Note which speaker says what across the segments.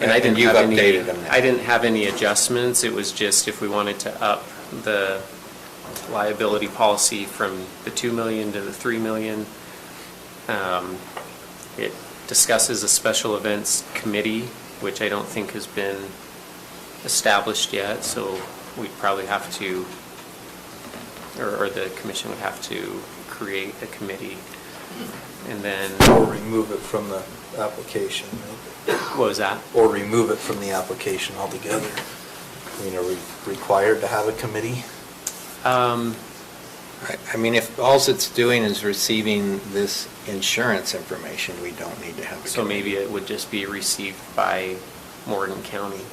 Speaker 1: And I didn't
Speaker 2: You've
Speaker 1: have any.
Speaker 2: updated them now.
Speaker 1: I didn't have any adjustments, it was just if we wanted to up the liability policy from the 2 million to the 3 million. Um, It discusses a special events committee, which I don't think has been established yet, so we'd probably have to, or, or the commission would have to create a committee. And then,
Speaker 3: Or remove it from the Uh, application, right?
Speaker 1: what was that?
Speaker 3: or remove it from the application altogether. I mean, are we required to have a committee?
Speaker 1: Um,
Speaker 2: I- I mean, if alls it's doing is receiving this insurance information, we don't need to have a.
Speaker 1: So maybe
Speaker 2: committee.
Speaker 1: it would just be received by Morgan County,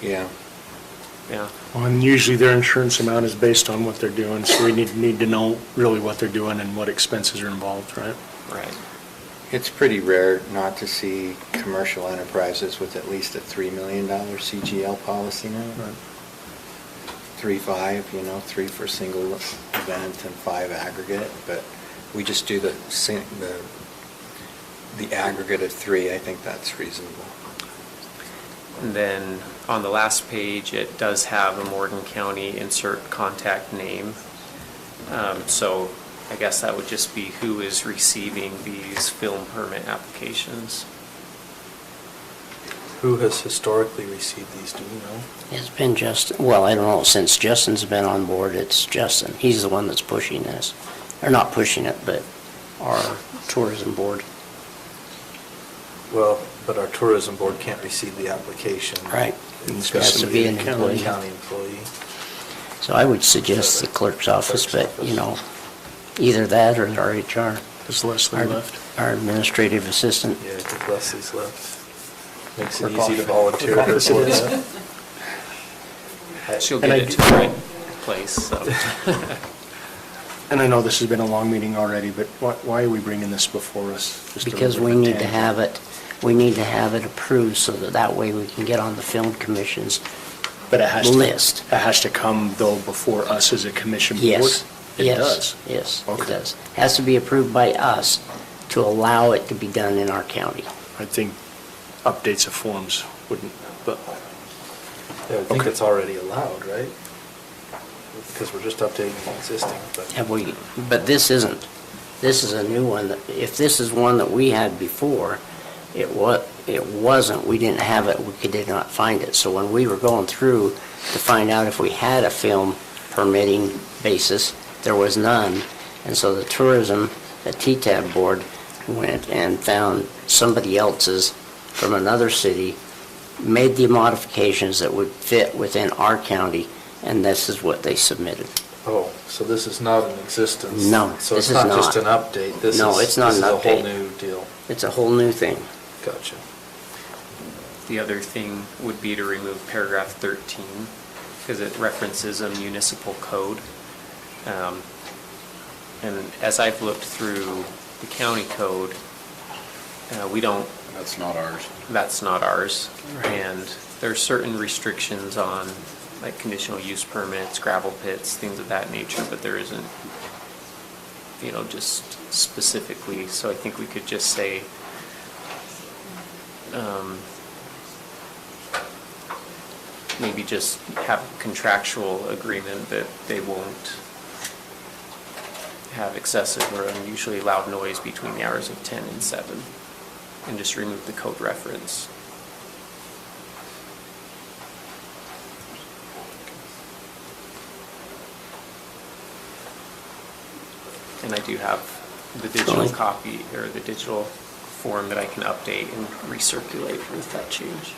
Speaker 2: Yeah.
Speaker 1: yeah.
Speaker 4: Well, And usually their insurance amount is based on what they're doing, so we need, need to know really what they're doing and what expenses are involved, right?
Speaker 1: Right.
Speaker 2: It's pretty rare not to see commercial enterprises with at least a $3 million CGL policy now.
Speaker 4: Right.
Speaker 2: Three, five, you know, three for single event and five aggregate, but we just do the, sing- the the aggregate of three. I think that's reasonable.
Speaker 1: And then on the last page, it does have a Morgan County insert contact name. Um, So I guess that would just be who is receiving these film permit applications.
Speaker 3: Who has historically received these, do we know?
Speaker 5: It's been Justin, well, I don't know, since Justin's been on board, it's Justin. He's the one that's pushing this, or not pushing it, but our tourism board.
Speaker 3: Well, but our tourism board can't receive the application.
Speaker 5: Right.
Speaker 3: It's
Speaker 5: It's
Speaker 3: got to be an
Speaker 5: employee.
Speaker 3: county employee.
Speaker 5: So I would suggest the clerk's office, but, you know, either that or our HR.
Speaker 4: Is Leslie
Speaker 5: Our-
Speaker 4: left?
Speaker 5: Our administrative assistant.
Speaker 3: Yeah, I think Leslie's left. Makes it
Speaker 5: Clerk
Speaker 3: easy to
Speaker 5: office.
Speaker 3: volunteer.
Speaker 4: Clerk office it
Speaker 3: for
Speaker 4: is.
Speaker 3: that.
Speaker 1: She'll get
Speaker 4: And I
Speaker 1: it
Speaker 4: do-
Speaker 1: to the right place, so.
Speaker 4: And I know this has been a long meeting already, but why, why are we bringing this before us? Just a
Speaker 5: Because
Speaker 4: little
Speaker 5: we
Speaker 4: bit
Speaker 5: need to
Speaker 4: tangible.
Speaker 5: have it, we need to have it approved so that that way we can get on the film commission's
Speaker 4: But it has to.
Speaker 5: list.
Speaker 4: It has to come though before us as a commission board?
Speaker 5: Yes.
Speaker 4: It
Speaker 5: yes,
Speaker 4: does?
Speaker 5: Yes, it
Speaker 4: Okay.
Speaker 5: does. Has to be approved by us to allow it to be done in our county.
Speaker 4: I think updates of forms wouldn't, but,
Speaker 3: Yeah, I think
Speaker 4: Okay.
Speaker 3: it's already allowed, right? Because we're just updating the existing, but.
Speaker 5: Have we, but this isn't, this is a new one that, if this is one that we had before, it wa, it wasn't, we didn't have it, we could- did not find it. So when we were going through to find out if we had a film permitting basis, there was none. And so the tourism, the T-TAB board went and found somebody else's from another city, made the modifications that would fit within our county, and this is what they submitted.
Speaker 3: Oh, so this is not in existence?
Speaker 5: No,
Speaker 3: So
Speaker 5: this
Speaker 3: it's
Speaker 5: is
Speaker 3: not just an
Speaker 5: not.
Speaker 3: update? This
Speaker 5: No,
Speaker 3: is-
Speaker 5: it's not an
Speaker 3: This is a whole
Speaker 5: update.
Speaker 3: new deal.
Speaker 5: It's a whole new thing.
Speaker 3: Gotcha.
Speaker 1: The other thing would be to remove paragraph 13, because it references a municipal code. Um, And as I've looked through the county code, uh, we don't,
Speaker 6: That's not ours.
Speaker 1: that's not ours. And there are certain restrictions on, like, conditional use permits, gravel pits, things of that nature, but there isn't, you know, just specifically, so I think we could just say, um, maybe just have contractual agreement that they won't have excessive or unusually loud noise between the hours of 10 and 7, and just remove the code reference. And I do have the digital
Speaker 5: Totally.
Speaker 1: copy, or the digital form that I can update and recirculate with that change.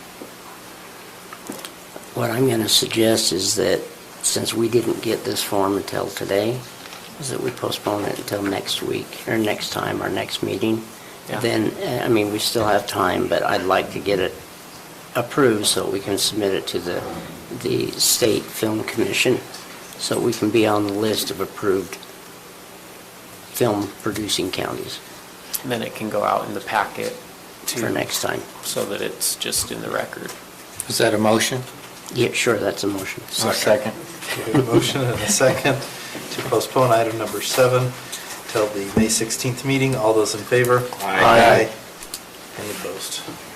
Speaker 5: What I'm going to suggest is that, since we didn't get this form until today, is that we postpone it until next week, or next time, our next meeting.
Speaker 1: Yeah.
Speaker 5: Then, uh, I mean, we still have time, but I'd like to get it approved so we can submit it to the, the State Film Commission, so we can be on the list of approved film-producing counties
Speaker 1: And then it can go out in the packet to.
Speaker 5: for next time.
Speaker 1: So that it's just in the record.
Speaker 2: Is that a motion?
Speaker 5: Yeah, sure, that's a motion.
Speaker 2: I'll Second.
Speaker 3: Okay, we have a motion and a second to postpone item number seven till the May 16th meeting. All those in favor?
Speaker 6: Aye.
Speaker 3: Any opposed?